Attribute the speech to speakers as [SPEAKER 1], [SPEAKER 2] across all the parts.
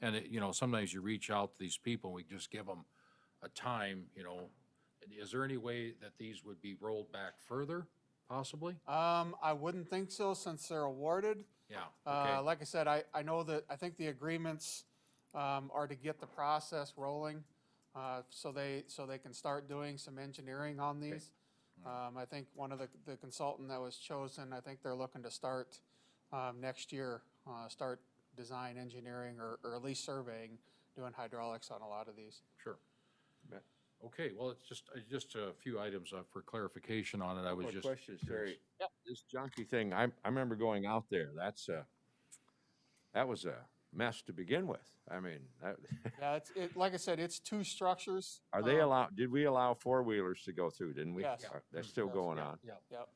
[SPEAKER 1] And it, you know, sometimes you reach out to these people, we just give them a time, you know. Is there any way that these would be rolled back further, possibly?
[SPEAKER 2] Um, I wouldn't think so since they're awarded.
[SPEAKER 1] Yeah,
[SPEAKER 2] Uh,
[SPEAKER 1] okay,
[SPEAKER 2] like I said, I, I know that, I think the agreements, um, are to get the process rolling. Uh, so they, so they can start doing some engineering on these.
[SPEAKER 3] Mm-hmm.
[SPEAKER 2] Um, I think one of the, the consultant that was chosen, I think they're looking to start, um, next year, uh, start design engineering or, or at least surveying, doing hydraulics on a lot of these.
[SPEAKER 1] sure.
[SPEAKER 3] Bet.
[SPEAKER 1] Okay, well, it's just, it's just a few items uh, for clarification on it, I was
[SPEAKER 3] Quick
[SPEAKER 1] just.
[SPEAKER 3] question,
[SPEAKER 1] curious.
[SPEAKER 3] Terry. This junkie thing, I, I remember going out there. That's uh that was a mess to begin with. I mean, that-
[SPEAKER 2] Yeah, it's, it, like I said, it's two structures.
[SPEAKER 3] are they
[SPEAKER 2] um,
[SPEAKER 3] allowed, did we allow four-wheelers to go through, didn't we?
[SPEAKER 2] Yes. Mm-hmm.
[SPEAKER 3] Are- That's still
[SPEAKER 2] Yes,
[SPEAKER 3] going
[SPEAKER 2] yeah,
[SPEAKER 3] on.
[SPEAKER 1] yeah,
[SPEAKER 2] yep.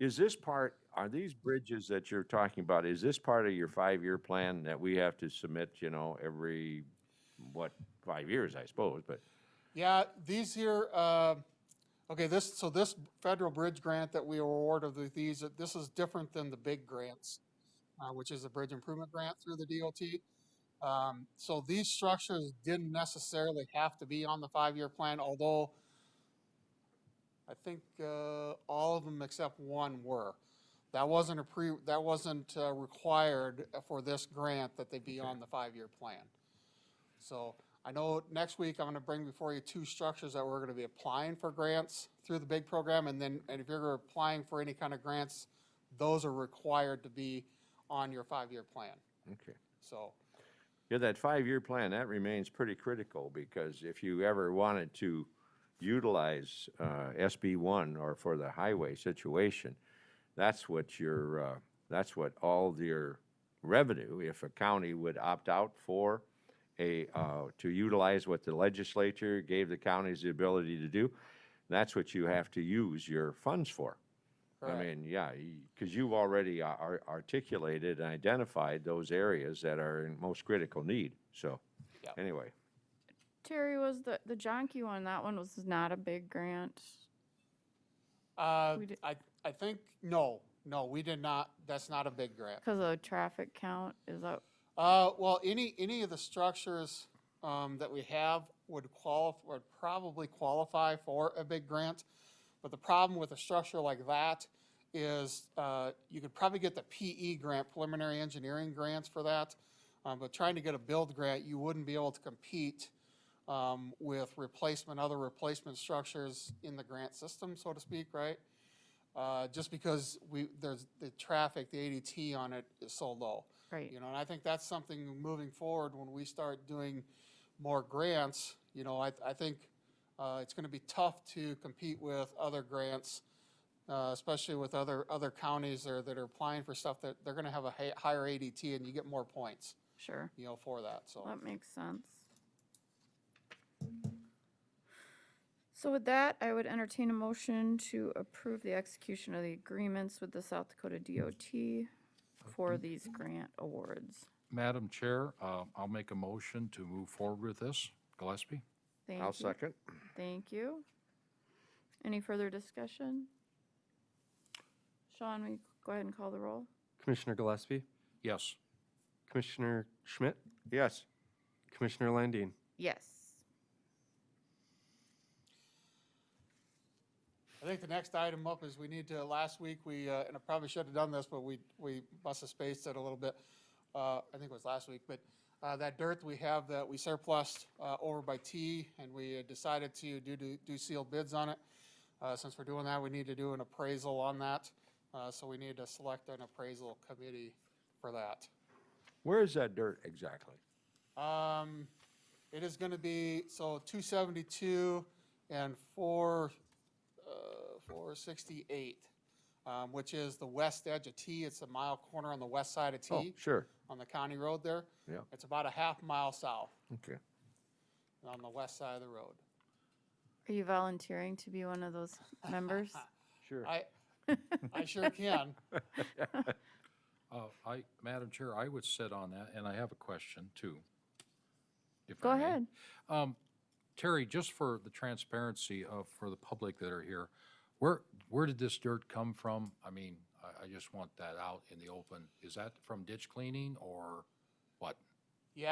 [SPEAKER 3] Is this part, are these bridges that you're talking about, is this part of your five-year plan that we have to submit, you know, every, what, five years, I suppose, but
[SPEAKER 2] Yeah, these here, uh, okay, this, so this federal bridge grant that we were awarded with these, uh, this is different than the big grants, uh, which is a bridge improvement grant through the DOT. Um, so these structures didn't necessarily have to be on the five-year plan, although I think, uh, all of them except one were. That wasn't a pre, that wasn't, uh, required for this grant that they be on the five-year plan. So I know next week I'm gonna bring before you two structures that we're gonna be applying for grants through the big program, and then, and if you're applying for any kind of grants, those are required to be on your five-year plan,
[SPEAKER 3] okay.
[SPEAKER 2] so.
[SPEAKER 3] Yeah, that five-year plan, that remains pretty critical, because if you ever wanted to utilize uh, SB one or for the highway situation, that's what your, uh, that's what all your revenue, if a county would opt out for a, uh, to utilize what the legislature gave the counties the ability to do, that's what you have to use your funds for. I
[SPEAKER 2] correct.
[SPEAKER 3] mean, yeah, because you've already ar- ar- articulated and identified those areas that are in most critical need, so,
[SPEAKER 2] Yeah.
[SPEAKER 3] anyway.
[SPEAKER 4] Terry was the, the Jonkey one, that one was not a big grant.
[SPEAKER 2] Uh,
[SPEAKER 4] we did-
[SPEAKER 2] I, I think, no, no, we did not, that's not a big grant.
[SPEAKER 4] Cause of traffic count, is that,
[SPEAKER 2] Uh, well, any, any of the structures, um, that we have would qualify, would probably qualify for a big grant. But the problem with a structure like that is, uh, you could probably get the PE grant, preliminary engineering grants for that. Um, but trying to get a build grant, you wouldn't be able to compete, um, with replacement, other replacement structures in the grant system, so to speak, right? Uh, just because we, there's, the traffic, the ADT on it is so low.
[SPEAKER 4] right,
[SPEAKER 2] You know, and I think that's something moving forward when we start doing more grants, you know, I, I think uh, it's going to be tough to compete with other grants, uh, especially with other, other counties there that are applying for stuff that they're going to have a hi- higher ADT and you get more points,
[SPEAKER 4] sure,
[SPEAKER 2] you know, for that, so.
[SPEAKER 4] that makes sense. So with that, I would entertain a motion to approve the execution of the agreements with the South Dakota DOT for these grant awards.
[SPEAKER 1] Madam Chair, uh, I'll make a motion to move forward with this. Gillespie?
[SPEAKER 4] Thank
[SPEAKER 3] I'll
[SPEAKER 4] you.
[SPEAKER 3] second.
[SPEAKER 4] Thank you. Any further discussion? Sean, we go ahead and call the roll?
[SPEAKER 5] Commissioner Gillespie,
[SPEAKER 1] Yes.
[SPEAKER 5] Commissioner Schmidt,
[SPEAKER 3] Yes,
[SPEAKER 5] Commissioner Landine.
[SPEAKER 4] Yes.
[SPEAKER 2] I think the next item up is we need to, last week, we, uh, and I probably should have done this, but we, we must have spaced it a little bit. Uh, I think it was last week, but, uh, that dirt we have that we surplused, uh, over by T and we had decided to do, do, do sealed bids on it. Uh, since we're doing that, we need to do an appraisal on that. Uh, so we need to select an appraisal committee for that.
[SPEAKER 3] where is that dirt exactly?
[SPEAKER 2] Um, it is gonna be, so two seventy-two and four, uh, four sixty-eight, um, which is the west edge of T. It's a mile corner on the west side of
[SPEAKER 3] Oh,
[SPEAKER 2] T,
[SPEAKER 3] sure,
[SPEAKER 2] on the county road there.
[SPEAKER 3] Yeah.
[SPEAKER 2] It's about a half mile south,
[SPEAKER 3] okay.
[SPEAKER 2] on the west side of the road.
[SPEAKER 4] Are you volunteering to be one of those members?
[SPEAKER 3] Sure.
[SPEAKER 2] I, I sure can.
[SPEAKER 1] Uh, I, Madam Chair, I would sit on that, and I have a question too. if
[SPEAKER 4] Go
[SPEAKER 1] I may.
[SPEAKER 4] ahead.
[SPEAKER 1] Um, Terry, just for the transparency of, for the public that are here, where, where did this dirt come from? I mean, I, I just want that out in the open. Is that from ditch cleaning or what?